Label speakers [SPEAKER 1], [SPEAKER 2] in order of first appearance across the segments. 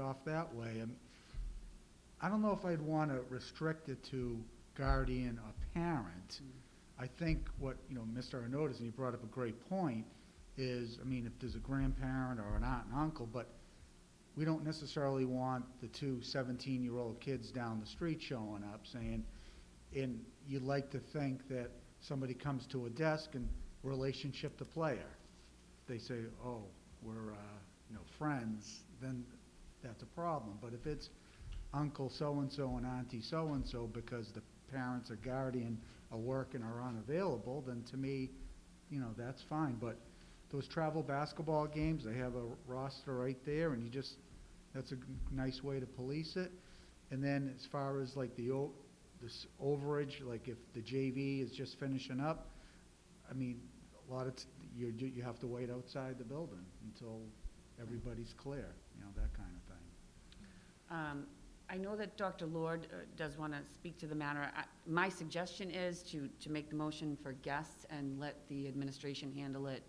[SPEAKER 1] off that way. And I don't know if I'd want to restrict it to guardian or parent. I think what, you know, Mr. Arnott is, and he brought up a great point, is, I mean, if there's a grandparent or an aunt and uncle, but we don't necessarily want the two 17-year-old kids down the street showing up saying, and you'd like to think that somebody comes to a desk and relationship to player. They say, oh, we're, uh, you know, friends, then that's a problem. But if it's uncle so-and-so and auntie so-and-so because the parents or guardian are working or unavailable, then to me, you know, that's fine. But those travel basketball games, they have a roster right there, and you just, that's a g- nice way to police it. And then as far as like the, o- this overage, like if the JV is just finishing up, I mean, a lot of, t- you, do- you have to wait outside the building until everybody's clear, you know, that kind of thing.
[SPEAKER 2] Um, I know that Dr. Lord uh, does want to speak to the matter. I- My suggestion is to, to make the motion for guests and let the administration handle it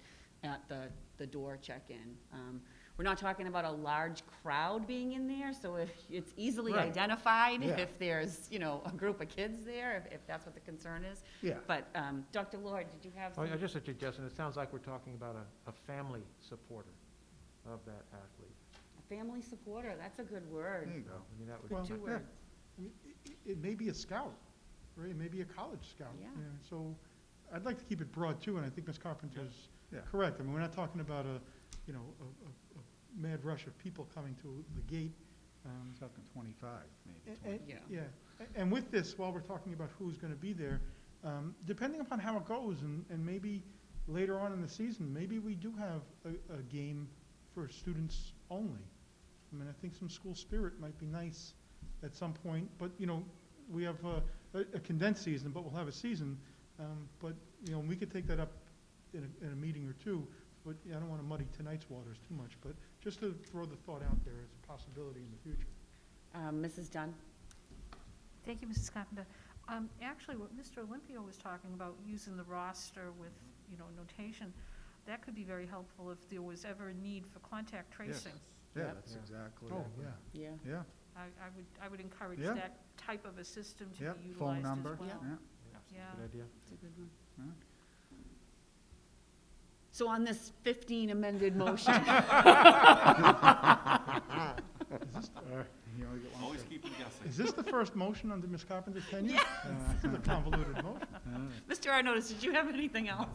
[SPEAKER 2] at the, the door check-in. Um, We're not talking about a large crowd being in there, so if it's easily
[SPEAKER 1] Right.
[SPEAKER 2] identified
[SPEAKER 1] Yeah.
[SPEAKER 2] if there's, you know, a group of kids there, if- if that's what the concern is.
[SPEAKER 1] Yeah.
[SPEAKER 2] But, um, Dr. Lord, did you have
[SPEAKER 3] Oh, I
[SPEAKER 2] some?
[SPEAKER 3] I just a suggestion, it sounds like we're talking about a, a family supporter of that athlete.
[SPEAKER 2] a Family supporter, that's a good
[SPEAKER 4] There
[SPEAKER 2] word.
[SPEAKER 4] you
[SPEAKER 3] I
[SPEAKER 4] go.
[SPEAKER 3] mean, that would,
[SPEAKER 4] Well, oh,
[SPEAKER 2] Two
[SPEAKER 4] yeah.
[SPEAKER 2] words.
[SPEAKER 4] I mean, i- i- It may be a scout, right? It may be a college scout.
[SPEAKER 2] Yeah.
[SPEAKER 4] you know, So I'd like to keep it broad too, and I think Ms. Carpenter's
[SPEAKER 1] Yeah.
[SPEAKER 4] correct. I mean, we're not talking about a, you know, a, a- a mad rush of people coming to the gate. um,
[SPEAKER 1] Talking twenty-five, maybe
[SPEAKER 4] a-
[SPEAKER 1] twenty.
[SPEAKER 4] and-
[SPEAKER 2] Yeah.
[SPEAKER 4] Yeah, A- and with this, while we're talking about who's gonna be there, um, depending upon how it goes, and, and maybe later on in the season, maybe we do have a, a game for students only. I mean, I think some school spirit might be nice at some point, but, you know, we have uh, a, a condensed season, but we'll have a season. Um, but, you know, we could take that up in a, in a meeting or two, but I don't wanna muddy tonight's waters too much, but just to throw the thought out there as a possibility in the future.
[SPEAKER 2] Um, Mrs. Dunn?
[SPEAKER 5] Thank you, Mrs. Carpenter. Um, Actually, what Mr. Olympio was talking about, using the roster with, you know, notation, that could be very helpful if there was ever a need for contact tracing.
[SPEAKER 1] Yeah,
[SPEAKER 2] Yep.
[SPEAKER 1] that's
[SPEAKER 3] Yeah.
[SPEAKER 1] exactly
[SPEAKER 4] Oh,
[SPEAKER 1] it.
[SPEAKER 4] yeah.
[SPEAKER 2] Yeah.
[SPEAKER 1] Yeah,
[SPEAKER 5] I I would, I would encourage
[SPEAKER 1] Yeah.
[SPEAKER 5] that type of a system
[SPEAKER 1] yeah,
[SPEAKER 5] to be
[SPEAKER 1] phone
[SPEAKER 5] utilized as
[SPEAKER 1] number,
[SPEAKER 5] well.
[SPEAKER 2] Yeah.
[SPEAKER 1] yeah.
[SPEAKER 5] Yeah.
[SPEAKER 3] good idea.
[SPEAKER 2] That's a good one.
[SPEAKER 1] Yeah.
[SPEAKER 2] So on this 15 amended motion,
[SPEAKER 1] Or, You only get one
[SPEAKER 6] Always
[SPEAKER 1] shot.
[SPEAKER 6] keep them guessing.
[SPEAKER 4] Is this the first motion under Ms. Carpenter's tenure? Uh, This is a convoluted motion.
[SPEAKER 2] Mr. Arnottis, did you have anything else?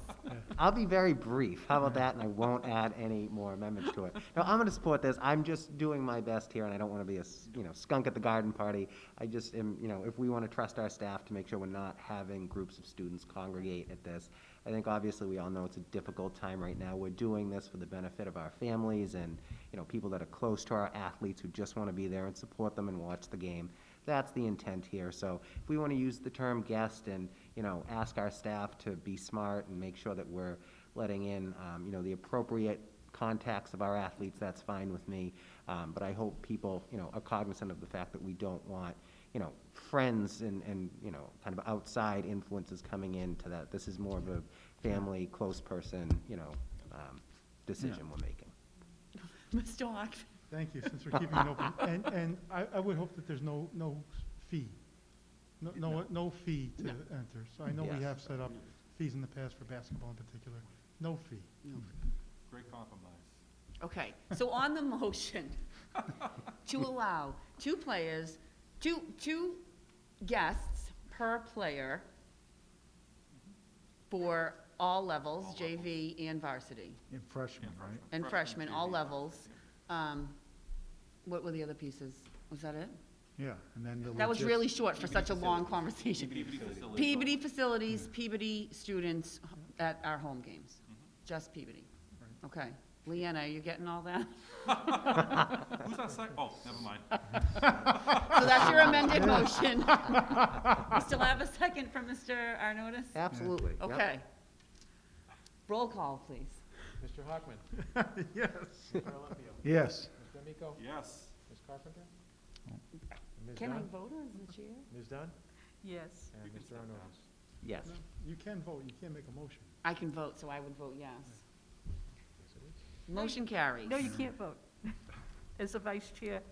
[SPEAKER 7] I'll be very brief. How about that? And I won't add any more amendments to it. No, I'm going to support this. I'm just doing my best here, and I don't want to be a s- you know skunk at the garden party. I just am you know if we want to trust our staff to make sure we're not having groups of students congregate at this. I think obviously we all know it's a difficult time right now. We're doing this for the benefit of our families and you know people that are close to our athletes who just want to be there and support them and watch the game. That's the intent here. So if we want to use the term guest and, you know, ask our staff to be smart and make sure that we're letting in, um, you know, the appropriate contacts of our athletes, that's fine with me. Um, but I hope people, you know, are cognizant of the fact that we don't want, you know, friends and, and, you know, kind of outside influences coming into that. This is more of a family, close person, you know, um, decision we're making.
[SPEAKER 2] Mr. Hawk?
[SPEAKER 4] Thank you, since we're keeping it open. And, and I, I would hope that there's no, no fee. No, no, no fee to enter. So I know we
[SPEAKER 7] Yes.
[SPEAKER 4] have set up fees in the past for basketball in particular. No fee.
[SPEAKER 6] Great compromise.
[SPEAKER 2] Okay, so on the motion to allow two players, two, two guests per player for all levels, JV and varsity,
[SPEAKER 1] And freshman,
[SPEAKER 6] And
[SPEAKER 1] right?
[SPEAKER 2] and freshmen, all
[SPEAKER 6] JV,
[SPEAKER 2] levels. Um, What were the other pieces? Was that it?
[SPEAKER 1] Yeah, and then the.
[SPEAKER 2] That was
[SPEAKER 1] logis-
[SPEAKER 2] really short for such a long conversation.
[SPEAKER 6] Peabody facility.
[SPEAKER 2] Peabody facilities, Peabody students at our home games, just Peabody. Okay. Leanna, are you getting all that?
[SPEAKER 6] Who's that sec, oh, never mind.
[SPEAKER 2] So that's your amended motion. We still have a second from Mr. Arnottis?
[SPEAKER 7] Absolutely. Yep.
[SPEAKER 2] Okay. Roll call, please.
[SPEAKER 3] Mr. Hockman,
[SPEAKER 4] Yes.
[SPEAKER 3] Mr. Olympio,
[SPEAKER 1] Yes.
[SPEAKER 3] Mr. D'Amico,
[SPEAKER 6] Yes,
[SPEAKER 3] Ms. Carpenter?
[SPEAKER 4] Oh.
[SPEAKER 3] Ms.
[SPEAKER 2] Can I
[SPEAKER 3] Dunn?
[SPEAKER 2] vote as the chair?
[SPEAKER 3] Ms. Dunn?
[SPEAKER 5] Yes.
[SPEAKER 3] And
[SPEAKER 6] You can
[SPEAKER 3] Mr.
[SPEAKER 6] step down.
[SPEAKER 3] Arnottis.
[SPEAKER 7] Yes.
[SPEAKER 4] You can vote, you can't make a motion.
[SPEAKER 2] I can vote, so I would vote yes. Motion carries.
[SPEAKER 5] No, you can't vote. As a vice chair,